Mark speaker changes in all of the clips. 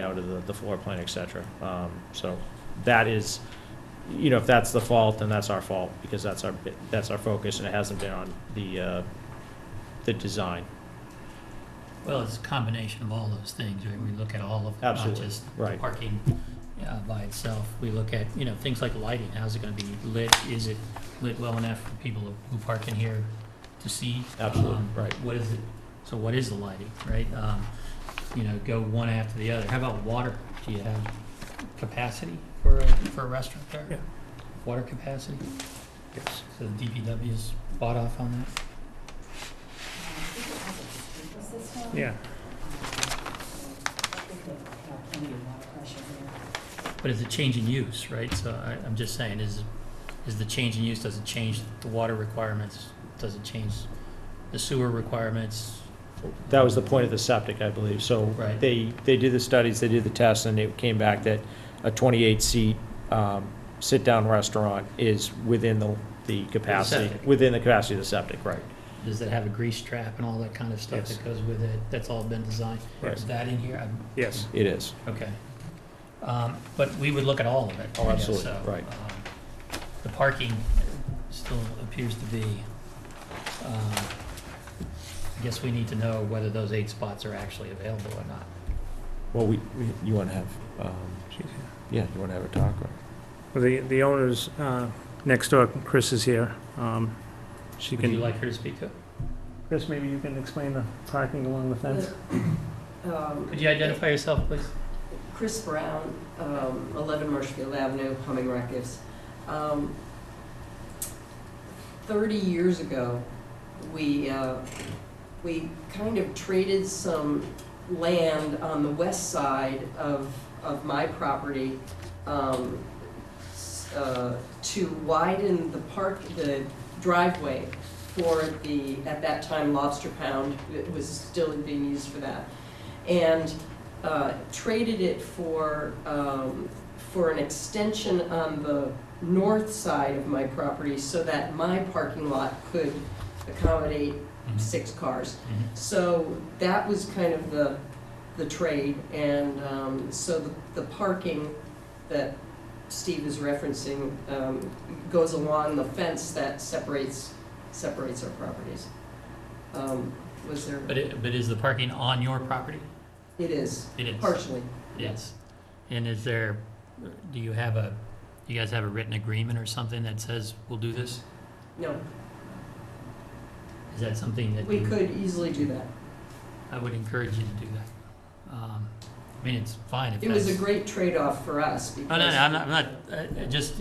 Speaker 1: out of the, the floor plan, et cetera. Um, so that is, you know, if that's the fault, then that's our fault, because that's our, bi- that's our focus, and it hasn't been on the, uh, the design.
Speaker 2: Well, it's a combination of all those things, right? We look at all of, not
Speaker 1: Absolutely,
Speaker 2: just the
Speaker 1: right.
Speaker 2: parking uh, by itself. We look at, you know, things like lighting, how's it gonna be lit? Is it lit well enough for people who park in here to see?
Speaker 1: Absolutely,
Speaker 2: Um,
Speaker 1: right.
Speaker 2: What is it, so what is the lighting, right? Um, You know, go one after the other. How about water? Do you have capacity for, a- for a restaurant there?
Speaker 1: Yeah.
Speaker 2: Water capacity?
Speaker 1: Yes.
Speaker 2: So the DPW's bought off on that?
Speaker 1: Yeah.
Speaker 2: But it's a change in use, right? So I, I'm just saying, is, is the change in use, does it change the water requirements? Does it change the sewer requirements?
Speaker 1: That was the point of the septic, I believe, so.
Speaker 2: Right.
Speaker 1: They, they did the studies, they did the tests, and it came back that a twenty-eight seat, um, sit-down restaurant is within the, the capacity.
Speaker 2: septic.
Speaker 1: Within the capacity of the septic, right.
Speaker 2: Does it have a grease trap and all that kind of stuff
Speaker 3: Yes.
Speaker 2: that goes with it? That's all been designed.
Speaker 1: Yes.
Speaker 2: Is that in here? I'm-
Speaker 3: Yes.
Speaker 1: It is.
Speaker 2: Okay. Um, but we would look at all of it.
Speaker 1: Oh,
Speaker 2: I guess,
Speaker 1: absolutely,
Speaker 2: so,
Speaker 1: right.
Speaker 2: um, The parking still appears to be, um, I guess we need to know whether those eight spots are actually available or not.
Speaker 1: Well, we, we- you wanna have, um, yeah, you wanna have a talk, or?
Speaker 3: Well, The, the owner's uh, next door, Chris is here. Um, She
Speaker 2: Would you
Speaker 3: can,
Speaker 2: like her to speak to it?
Speaker 3: Chris, maybe you can explain the parking along the fence?
Speaker 2: Could you identify yourself, please?
Speaker 4: Um, Chris Brown, um, 11 Marshfield Avenue, Humming Records. Um, 30 years ago, we, uh, we kind of traded some land on the west side of, of my property um, s- uh, to widen the park, the driveway for the, at that time, Lobster Pound. It was still being used for that. And uh, traded it for, um, for an extension on the north side of my property so that my parking lot could accommodate
Speaker 2: Mm-hmm.
Speaker 4: six cars.
Speaker 2: Mhm.
Speaker 4: So that was kind of the, the trade, and um, so the, the parking that Steve is referencing um, goes along the fence that separates, separates our properties. Um, Was there,
Speaker 2: But it, but is the parking on your property?
Speaker 4: it is,
Speaker 2: It is.
Speaker 4: partially.
Speaker 2: Yes. And is there, do you have a, you guys have a written agreement or something that says we'll do this?
Speaker 4: No,
Speaker 2: Is that something that
Speaker 4: we
Speaker 2: you-
Speaker 4: could easily do that.
Speaker 2: I would encourage you to do that. Um, I mean, it's fine if
Speaker 4: It was a
Speaker 2: that's.
Speaker 4: great trade-off for us because.
Speaker 2: Oh, No, no, no, I'm not, I'm not, I- I just,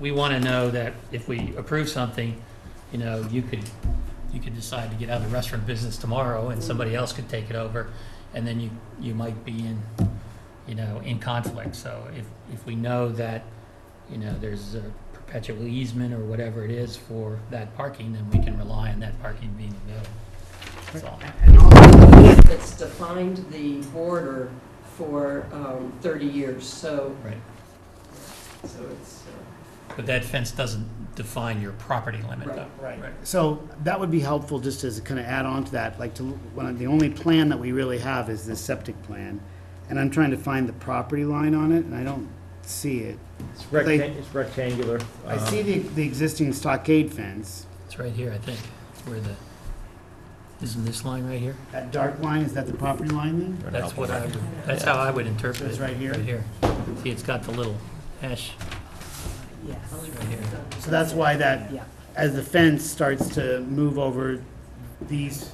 Speaker 2: we want to know that if we approve something, you know, you could, you could decide to get out of the restaurant business tomorrow and somebody else could take it over. And then you, you might be in, you know, in conflict. So if, if we know that, you know, there's a perpetual easement or whatever it is for that parking, then we can rely on that parking being available. That's all.
Speaker 4: And also, It's defined the border for um, 30 years, so,
Speaker 2: Right.
Speaker 4: so it's, uh,
Speaker 2: But that fence doesn't define your property limit though.
Speaker 4: Right,
Speaker 2: Right.
Speaker 5: So that would be helpful, just as a kind of add-on to that, like to, one of the only plan that we really have is this septic plan. And I'm trying to find the property line on it, and I don't see it.
Speaker 1: It's
Speaker 5: They-
Speaker 1: rectan- it's rectangular.
Speaker 5: I
Speaker 2: Uh-huh.
Speaker 1: um,
Speaker 5: see the, the existing stockade fence.
Speaker 2: It's right here, I think, where the, isn't this line right here?
Speaker 5: That dark line, is that the property line then?
Speaker 2: That's what I would, that's how I would interpret it.
Speaker 5: It's right here?
Speaker 2: Right here. See, it's got the little hash.
Speaker 6: Yes.
Speaker 2: Right here.
Speaker 5: So that's why that,
Speaker 6: Yeah.
Speaker 5: as the fence starts to move over, these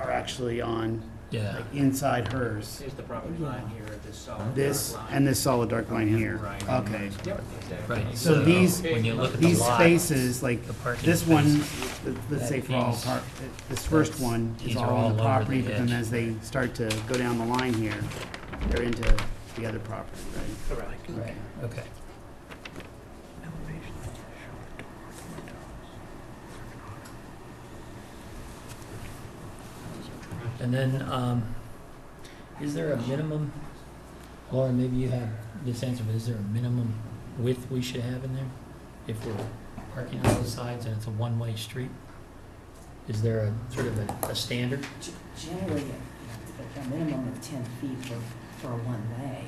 Speaker 5: are actually on,
Speaker 2: Yeah,
Speaker 5: like, inside hers.
Speaker 7: Here's the property line here, this solid.
Speaker 5: This
Speaker 7: dark line.
Speaker 5: and this solid dark line here.
Speaker 7: Right.
Speaker 5: Okay.
Speaker 7: Yep, exactly.
Speaker 2: right.
Speaker 5: So these-
Speaker 2: When you look at the
Speaker 5: These
Speaker 2: lot,
Speaker 5: spaces, like,
Speaker 2: the parking
Speaker 5: This one,
Speaker 2: space,
Speaker 5: let's say for all part, this first
Speaker 2: That's-
Speaker 5: one
Speaker 2: these
Speaker 5: is
Speaker 2: are
Speaker 5: all on the
Speaker 2: all over
Speaker 5: property,
Speaker 2: the
Speaker 5: but then
Speaker 2: edge.
Speaker 5: as they start to go down the line here, they're into the other property, right?
Speaker 7: Correct.
Speaker 2: Right, okay. And then, um, is there a minimum, Laura, maybe you have this answer, but is there a minimum width we should have in there? If we're parking on both sides and it's a one-way street? Is there a sort of a, a standard?
Speaker 6: G- Generally, a a minimum of ten feet for for a one-way.